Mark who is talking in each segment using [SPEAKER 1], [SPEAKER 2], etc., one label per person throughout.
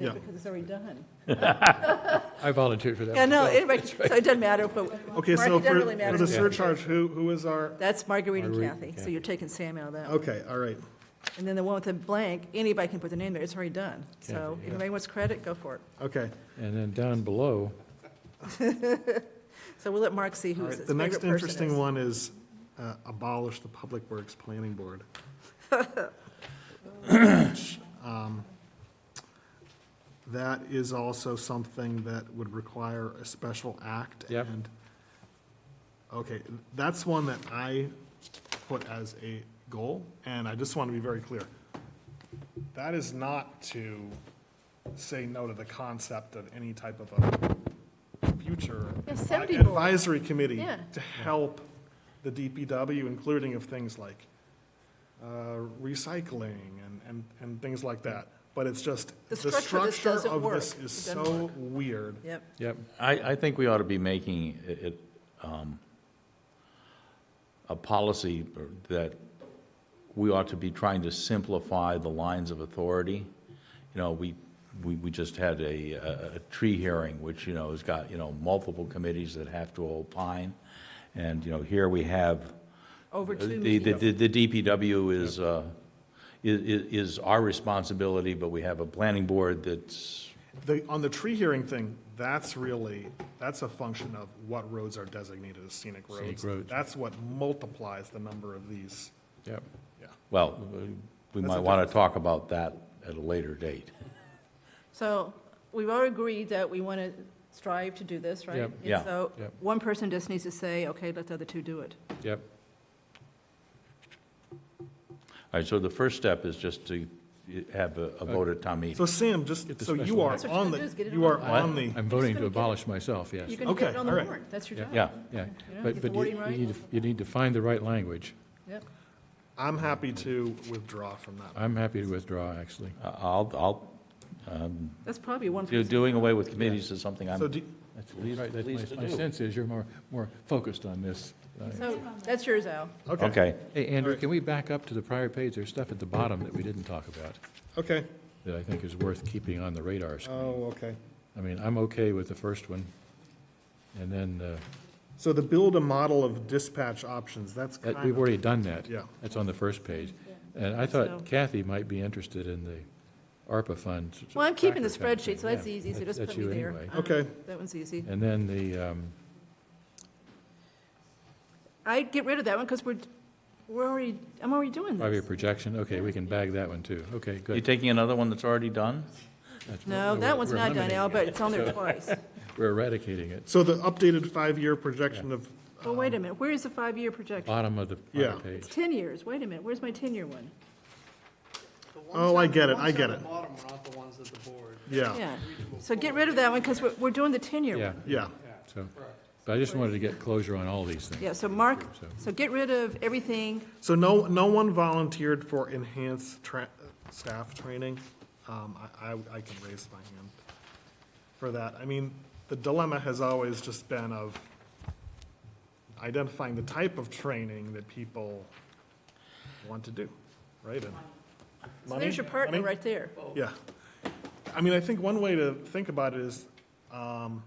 [SPEAKER 1] Yeah.
[SPEAKER 2] because it's already done.
[SPEAKER 3] I volunteered for that.
[SPEAKER 2] Yeah, no,
[SPEAKER 3] myself.
[SPEAKER 2] anyway, so it doesn't matter, but.
[SPEAKER 1] Okay,
[SPEAKER 2] Mark,
[SPEAKER 1] so
[SPEAKER 2] it doesn't
[SPEAKER 1] for,
[SPEAKER 2] really
[SPEAKER 1] for
[SPEAKER 2] matter.
[SPEAKER 1] the surcharge, who, who is our,
[SPEAKER 2] That's Marguerite and
[SPEAKER 3] Marguerite,
[SPEAKER 2] Kathy, so
[SPEAKER 3] Kathy.
[SPEAKER 2] you're taking Sam out of that.
[SPEAKER 1] okay, all right.
[SPEAKER 2] And then the one with the blank, anybody can put their name there, it's already done. So
[SPEAKER 3] Kathy,
[SPEAKER 2] if
[SPEAKER 3] yeah.
[SPEAKER 2] anybody wants credit, go for it.
[SPEAKER 1] Okay,
[SPEAKER 3] And then down below,
[SPEAKER 2] So we'll let Mark see
[SPEAKER 1] all
[SPEAKER 2] who
[SPEAKER 1] right.
[SPEAKER 2] his favorite
[SPEAKER 1] The
[SPEAKER 2] person is.
[SPEAKER 1] next interesting one is uh, abolish the Public Works Planning Board. Which, um, That is also something that would require a special act.
[SPEAKER 3] Yep.
[SPEAKER 1] And, okay, that's one that I put as a goal, and I just want to be very clear. That is not to say no to the concept of any type of a future
[SPEAKER 2] Yeah, 70 board.
[SPEAKER 1] advisory committee
[SPEAKER 2] Yeah.
[SPEAKER 1] to help the DPW, including of things like uh, recycling and, and, and things like that. But it's just,
[SPEAKER 2] The
[SPEAKER 1] the
[SPEAKER 2] structure of this
[SPEAKER 1] structure
[SPEAKER 2] doesn't
[SPEAKER 1] of
[SPEAKER 2] work.
[SPEAKER 1] this is
[SPEAKER 2] It doesn't
[SPEAKER 1] so weird.
[SPEAKER 2] Yep,
[SPEAKER 3] yep,
[SPEAKER 4] I, I think we ought to be making it, it, um, a policy that we ought to be trying to simplify the lines of authority. You know, we, we, we just had a, a- a tree hearing, which, you know, has got, you know, multiple committees that have to opine. And, you know, here we have,
[SPEAKER 2] over two
[SPEAKER 4] the,
[SPEAKER 2] meetings.
[SPEAKER 4] the, the DPW is, uh, i- i- is our responsibility, but we have a planning board that's,
[SPEAKER 1] The, on the tree hearing thing, that's really, that's a function of what roads are designated as scenic roads.
[SPEAKER 3] roads.
[SPEAKER 1] That's what multiplies the number of these.
[SPEAKER 3] yep.
[SPEAKER 1] Yeah.
[SPEAKER 4] Well, we might want to talk about that at a later date.
[SPEAKER 2] So we've all agreed that we want to strive to do this, right?
[SPEAKER 3] Yep.
[SPEAKER 2] And
[SPEAKER 4] Yeah.
[SPEAKER 2] So
[SPEAKER 3] Yep.
[SPEAKER 2] one person just needs to say, okay, let the other two do it.
[SPEAKER 3] Yep,
[SPEAKER 4] All right, so the first step is just to have a a vote at town
[SPEAKER 1] So
[SPEAKER 4] meeting.
[SPEAKER 1] Sam, just,
[SPEAKER 3] Get the
[SPEAKER 1] so you
[SPEAKER 3] special-
[SPEAKER 1] are
[SPEAKER 2] That's what you
[SPEAKER 1] on
[SPEAKER 2] gotta do is get
[SPEAKER 1] the,
[SPEAKER 2] it
[SPEAKER 1] you are
[SPEAKER 3] I-
[SPEAKER 1] on the,
[SPEAKER 3] I'm voting
[SPEAKER 2] Just gonna
[SPEAKER 3] to
[SPEAKER 2] get-
[SPEAKER 3] abolish myself, yes.
[SPEAKER 2] You can get
[SPEAKER 1] Okay,
[SPEAKER 2] it on the
[SPEAKER 1] all right.
[SPEAKER 2] warrant, that's your
[SPEAKER 3] Yeah.
[SPEAKER 2] job.
[SPEAKER 4] Yeah,
[SPEAKER 3] Yeah,
[SPEAKER 2] You know,
[SPEAKER 3] but,
[SPEAKER 2] get the
[SPEAKER 3] but
[SPEAKER 2] wording
[SPEAKER 3] you- you
[SPEAKER 2] right.
[SPEAKER 3] need, to- you need to find the right language.
[SPEAKER 2] Yep.
[SPEAKER 1] I'm happy to withdraw from that.
[SPEAKER 3] I'm happy to withdraw, actually.
[SPEAKER 4] I'll, I'll,
[SPEAKER 2] That's probably one
[SPEAKER 4] do-
[SPEAKER 2] person.
[SPEAKER 4] doing away with committees is something I'm
[SPEAKER 1] So do,
[SPEAKER 4] at least
[SPEAKER 3] Right, that's
[SPEAKER 4] pleased
[SPEAKER 3] my,
[SPEAKER 4] to
[SPEAKER 3] my
[SPEAKER 4] do.
[SPEAKER 3] sense is you're more, more focused on this. Uh,
[SPEAKER 2] So that's yours, Al.
[SPEAKER 1] okay,
[SPEAKER 4] Okay,
[SPEAKER 3] Hey, Andrew,
[SPEAKER 1] right.
[SPEAKER 3] can we back up to the prior page? There's stuff at the bottom that we didn't talk about
[SPEAKER 1] okay.
[SPEAKER 3] that I think is worth keeping on the radar
[SPEAKER 2] Uh,
[SPEAKER 3] screen.
[SPEAKER 1] Oh, okay.
[SPEAKER 3] I mean, I'm okay with the first one. And then, uh,
[SPEAKER 1] So the build a model of dispatch options, that's kind
[SPEAKER 3] That, we've
[SPEAKER 1] of,
[SPEAKER 3] already done that.
[SPEAKER 1] Yeah.
[SPEAKER 3] That's on the first page. And I
[SPEAKER 2] So-
[SPEAKER 3] thought Kathy might be interested in the ARPA funds.
[SPEAKER 2] Well, I'm keeping the
[SPEAKER 3] tracker kind of thing.
[SPEAKER 2] spreadsheet, so that's
[SPEAKER 3] Yeah,
[SPEAKER 2] easy, so
[SPEAKER 3] that's-
[SPEAKER 2] just
[SPEAKER 3] that's
[SPEAKER 2] put me
[SPEAKER 3] you
[SPEAKER 2] there.
[SPEAKER 3] anyway.
[SPEAKER 2] Uh,
[SPEAKER 1] Okay.
[SPEAKER 2] That one's easy.
[SPEAKER 3] And then the, um,
[SPEAKER 2] I'd get rid of that one because we're, we're already, I'm already doing
[SPEAKER 3] five-year
[SPEAKER 2] this.
[SPEAKER 3] projection, okay, we can bag that one too. Okay,
[SPEAKER 4] you
[SPEAKER 3] good.
[SPEAKER 4] taking another one that's already done?
[SPEAKER 3] That's-
[SPEAKER 2] No,
[SPEAKER 3] we're-
[SPEAKER 2] that one's
[SPEAKER 3] we're
[SPEAKER 2] not done, Al,
[SPEAKER 3] eliminating
[SPEAKER 2] but it's on there twice.
[SPEAKER 3] it. We're eradicating it,
[SPEAKER 1] So the updated five-year projection of,
[SPEAKER 2] Well, Oh, wait a minute, where is the five-year projection?
[SPEAKER 3] bottom of the
[SPEAKER 1] Yeah.
[SPEAKER 3] prior
[SPEAKER 2] It's
[SPEAKER 3] page.
[SPEAKER 2] 10 years, wait a minute, where's my 10-year one?
[SPEAKER 1] oh, I get it, I get
[SPEAKER 5] The
[SPEAKER 1] it.
[SPEAKER 5] ones at the bottom are not the ones at the board.
[SPEAKER 1] Yeah,
[SPEAKER 2] Yeah, so get rid of that one because we're, we're doing the 10-year
[SPEAKER 3] Oh. Yeah,
[SPEAKER 2] one.
[SPEAKER 1] yeah.
[SPEAKER 3] so, but I just wanted to get closure on all these things.
[SPEAKER 2] Yeah, so Mark,
[SPEAKER 3] So-
[SPEAKER 2] so get rid of everything,
[SPEAKER 1] So no, no one volunteered for enhanced tra- staff training. Um, I, I, I can raise my hand for that. I mean, the dilemma has always just been of identifying the type of training that people want to do, right? And
[SPEAKER 2] so there's your partner
[SPEAKER 1] Money?
[SPEAKER 2] right there.
[SPEAKER 1] Yeah. I mean, I think one way to think about it is, um,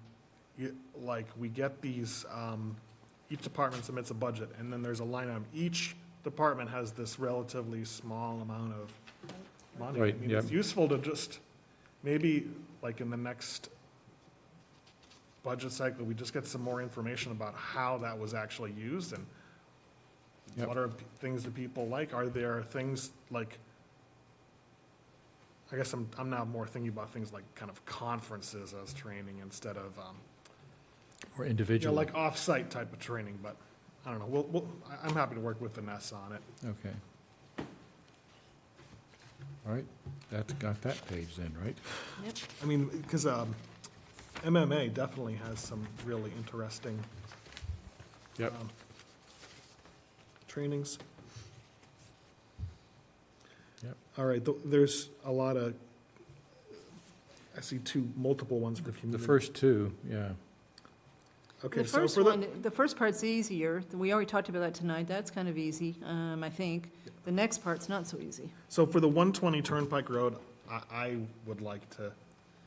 [SPEAKER 1] you, like, we get these, um, each department submits a budget, and then there's a line item. Each department has this relatively small amount of money.
[SPEAKER 3] Right,
[SPEAKER 1] I mean, It's
[SPEAKER 3] yep.
[SPEAKER 1] useful to just, maybe, like, in the next budget cycle, we just get some more information about how that was actually used, and
[SPEAKER 3] Yep.
[SPEAKER 1] what are p- things that people like? Are there things like, I guess I'm, I'm now more thinking about things like kind of conferences as training instead of, um,
[SPEAKER 3] Or
[SPEAKER 1] you know,
[SPEAKER 3] individual,
[SPEAKER 1] like off-site type of training, but I don't know. We'll, we'll, I- I'm happy to work with Vanessa on it.
[SPEAKER 3] okay. All right, that's got that page then, right?
[SPEAKER 2] Yep.
[SPEAKER 1] I mean, because, um, MMA definitely has some really interesting
[SPEAKER 3] Yep.
[SPEAKER 1] Um, trainings.
[SPEAKER 3] Yep.
[SPEAKER 1] All right, th- there's a lot of, I see two multiple ones
[SPEAKER 3] The
[SPEAKER 1] for community.
[SPEAKER 3] first two, yeah.
[SPEAKER 1] Okay,
[SPEAKER 2] The
[SPEAKER 1] so
[SPEAKER 2] first
[SPEAKER 1] for the-
[SPEAKER 2] one, the first part's easier, we already talked about that tonight, that's kind of easy, um, I think. The next part's not so easy.
[SPEAKER 1] So for the 120 Turnpike Road, I, I would like to